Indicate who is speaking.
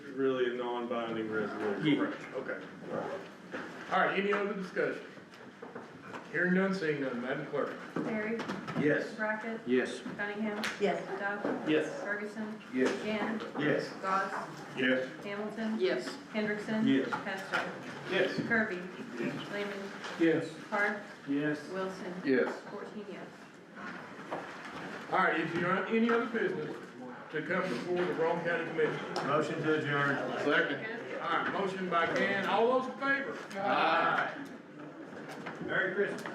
Speaker 1: binding resolution.
Speaker 2: Yeah.
Speaker 1: Right, Okay.
Speaker 3: All right, any other discussion? Hearing none, seeing none, Madam Clerk.
Speaker 4: Terry,
Speaker 1: Yes.
Speaker 4: Brackett,
Speaker 2: Yes.
Speaker 4: Cunningham,
Speaker 5: Yes.
Speaker 4: Doug,
Speaker 2: Yes.
Speaker 4: Ferguson,
Speaker 2: Yes.
Speaker 4: Gann,
Speaker 1: Yes.
Speaker 4: Goss,
Speaker 3: Yes.
Speaker 4: Hamilton,
Speaker 5: Yes.
Speaker 4: Hendrickson.
Speaker 1: Yes.
Speaker 4: Pesto,
Speaker 1: Yes.
Speaker 4: Kirby,
Speaker 1: Yes.
Speaker 4: Lehman,
Speaker 2: Yes.
Speaker 4: Park,
Speaker 2: Yes.
Speaker 4: Wilson.
Speaker 3: Yes.
Speaker 4: Fourteen yes.
Speaker 3: All right, if you're on any other business to come before the Wrong County Commission.
Speaker 1: Motion to adjourn.
Speaker 3: Second. All right, motion by Gann, all those in favor? Aye.
Speaker 1: Merry Christmas.